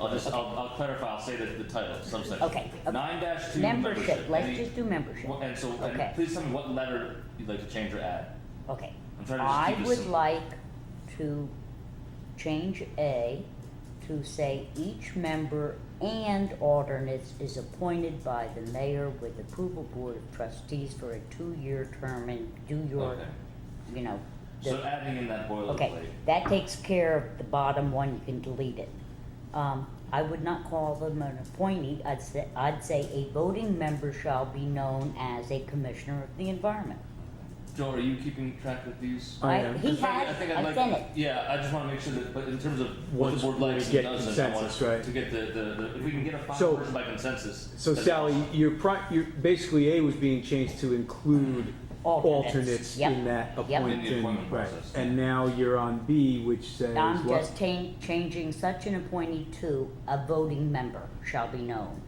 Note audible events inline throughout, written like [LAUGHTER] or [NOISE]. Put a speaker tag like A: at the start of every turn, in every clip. A: I'll just, I'll, I'll clarify, I'll say the, the title, subsection.
B: Okay, okay.
A: Nine dash two,
B: Membership,
A: membership.
B: let's
A: Any-
B: just do membership.
A: Well, And so,
B: Okay.
A: and please tell me what letter you'd like to change or add.
B: Okay.
A: I'm trying to just
B: I
A: keep this
B: would
A: simple.
B: like to change A to say each member and alternates is appointed by the mayor with approval board of trustees for a two-year term and do your,
A: Okay.
B: you know. the-
A: So adding in that boilerplate.
B: Okay, that takes care of the bottom one, you can delete it. Um, I would not call them an appointee, I'd say, I'd say a voting member shall be known as a commissioner of the environment.
A: Joe, are you keeping track of these?
C: I
B: I- He
C: am.
A: Oh, Because frankly,
B: has,
A: think I'd
B: I've
A: like-
B: done it.
A: Yeah, I just wanna make sure that, but in terms of what the
C: Once
A: board
C: we
A: likes and
C: get
A: doesn't, I want
C: consensus, right.
A: to get the, the, the- if we can get a
C: So-
A: final version by consensus.
C: So
A: that's
C: Sally,
A: awesome.
C: your pri, your, basically A was being changed to include
B: Alternates,
C: alternates
B: yep,
C: in that
B: yep.
A: In the appointment
C: appointment, right?
A: process.
C: And now you're on B, which says
B: I'm
C: what?
B: just ta- changing such an appointee to a voting member shall be known.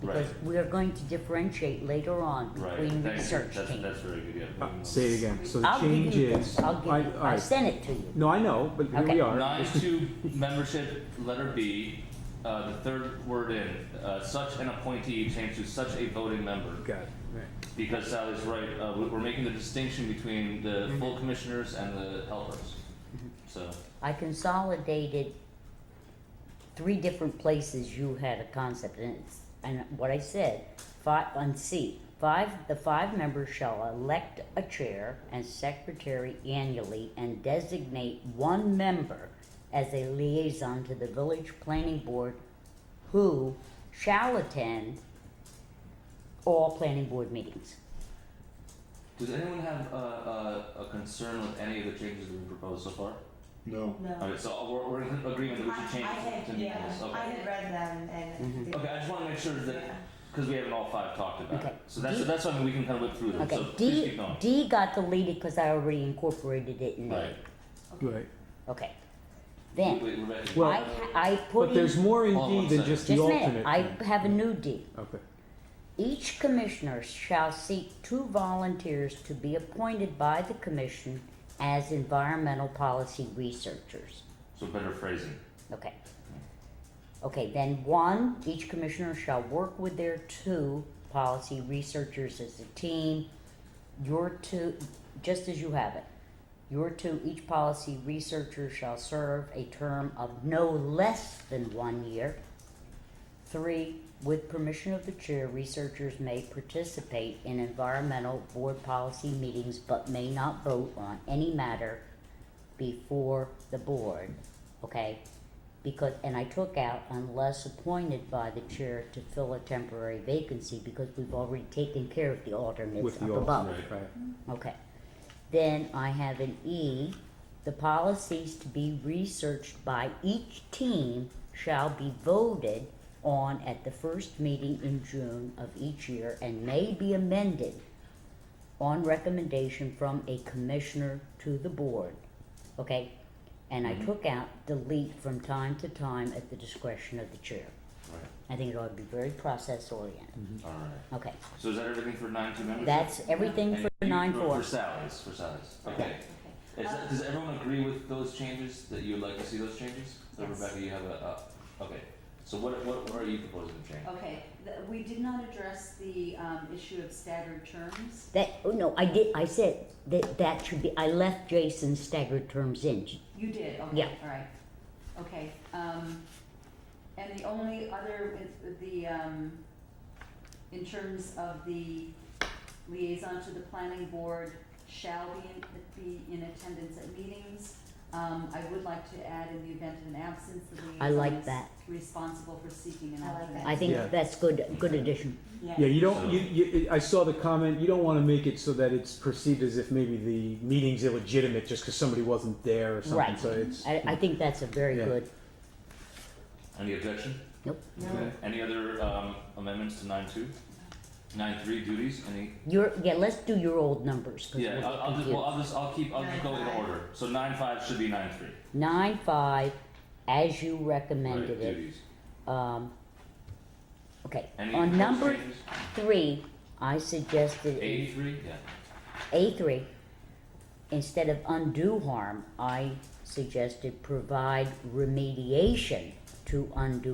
B: Because
A: Right.
B: we are going to differentiate later on
A: Right,
B: between
A: thank you.
B: research
A: That's-
B: teams.
A: That's very good, yeah.
C: Uh, Say it again, so the
B: I'll give
C: change
B: you this,
C: is.
B: I'll
C: I-
B: give you,
C: all
B: I
C: right.
B: sent it to you.
C: No, I know, but here
B: Okay.
C: we are.
A: Nine two membership, letter B, uh, the third word in, uh, such an appointee changed to such a voting member.
C: [LAUGHS] Got it, right.
A: Because Sally's right, uh, we- we're making the distinction between the full commissioners and the helpers. So,
B: I consolidated three different places you had a concept and it's, and what I said, five, on C, five, the five members shall elect a chair and secretary annually and designate one member as a liaison to the village planning board who shall attend all planning board meetings.
A: does anyone have a, a, a concern with any of the changes that we proposed so far?
D: No.
B: Um,
A: Alright, so we're, we're in agreement that we should
E: I, I
A: change it to
E: had,
A: be
E: yeah,
A: this,
E: I
A: okay.
E: had read them
B: Mm-hmm.
E: and.
A: Okay, I just wanna make sure that,
E: Yeah.
A: cause we haven't all five talked about it,
B: Okay.
A: so that's,
B: D-
A: that's something we can kinda whip through them,
B: Okay,
A: so please
B: D,
A: keep going.
B: D got deleted because I already incorporated it in there.
A: Right,
C: Right,
B: Okay.
A: wait,
B: Then,
A: wait, Rebecca.
C: Well-
B: I, ha- I put
C: but
B: in,
C: there's
B: just
C: more in
A: Hold on one
C: D than
A: second.
C: just
B: a
C: the
B: minute,
C: alternate.
B: I
C: thing.
B: have a new D.
C: Okay,
B: Each commissioner shall seek two volunteers to be appointed by the commission as environmental policy researchers.
A: So better phrasing.
B: Okay. Okay, then one, each commissioner shall work with their two policy researchers as a team. Your two, just as you have it, your two, each policy researcher shall serve a term of no less than one year. Three, with permission of the chair, researchers may participate in environmental board policy meetings but may not vote on any matter before the board, okay? Because, and I took out unless appointed by the chair to fill a temporary vacancy because we've already taken care of the alternates
C: with
B: up
C: the
B: above.
C: alternate, right.
B: Okay. Then I have an E. The policies to be researched by each team shall be voted on at the first meeting in June of each year and may be amended on recommendation from a commissioner to the board. Okay? And I took out delete from time to time at the discretion of the chair.
A: Right,
B: I think it ought to be very process oriented.
A: alright.
B: Okay.
A: So is that everything for nine two membership?
B: That's everything
A: And
B: for
A: you-
B: nine
A: for-
B: four.
A: For Sally's, for Sally's, okay. Is
E: Uh,
A: that, does everyone agree with those changes, that you would like to see those changes? Or
E: Yes.
A: Rebecca, you have a, uh, okay, so what, what, what are you proposing to change?
F: Okay, the- we did not address the um, issue of staggered terms.
B: That, oh no, I did, I said that that should be, I left Jason's staggered terms in.
F: You did,
B: Yeah.
F: okay, all right. Okay, um, and the only other, the, um, in terms of the liaison to the planning board shall be in, be in attendance at meetings. Um, I would like to add in the event of an absence, the liaison
B: I like
F: is
B: that.
F: responsible for seeking an
E: I like
F: alternate.
E: that.
B: I think
C: Yeah.
B: that's good, good addition.
C: Yeah, you don't, you, you, I saw the comment, you don't wanna make it so that it's perceived as if maybe the meeting's illegitimate just cause somebody wasn't there or something,
B: Right.
C: so it's.
B: I, I think that's a very
C: Yeah.
B: good, Oh.
A: Any objection?
B: nope.
C: Okay.
A: Any other, um, amendments to nine two? Nine three duties, any,
B: Your, yeah, let's do your old numbers. 'cause
A: yeah,
B: we're
A: I'll, I'll just, well,
B: confused.
A: I'll just, I'll keep, I'll just go in
E: 9-5.
A: order, so nine five should be nine three.
B: Nine five, as you
A: Right,
B: recommended it,
A: duties.
B: um, okay.
A: Any
B: On
A: proposed
B: number
A: changes?
B: three, I suggested.
A: Eighty three, yeah,
B: A three, instead of undue harm, I suggested provide remediation to to undo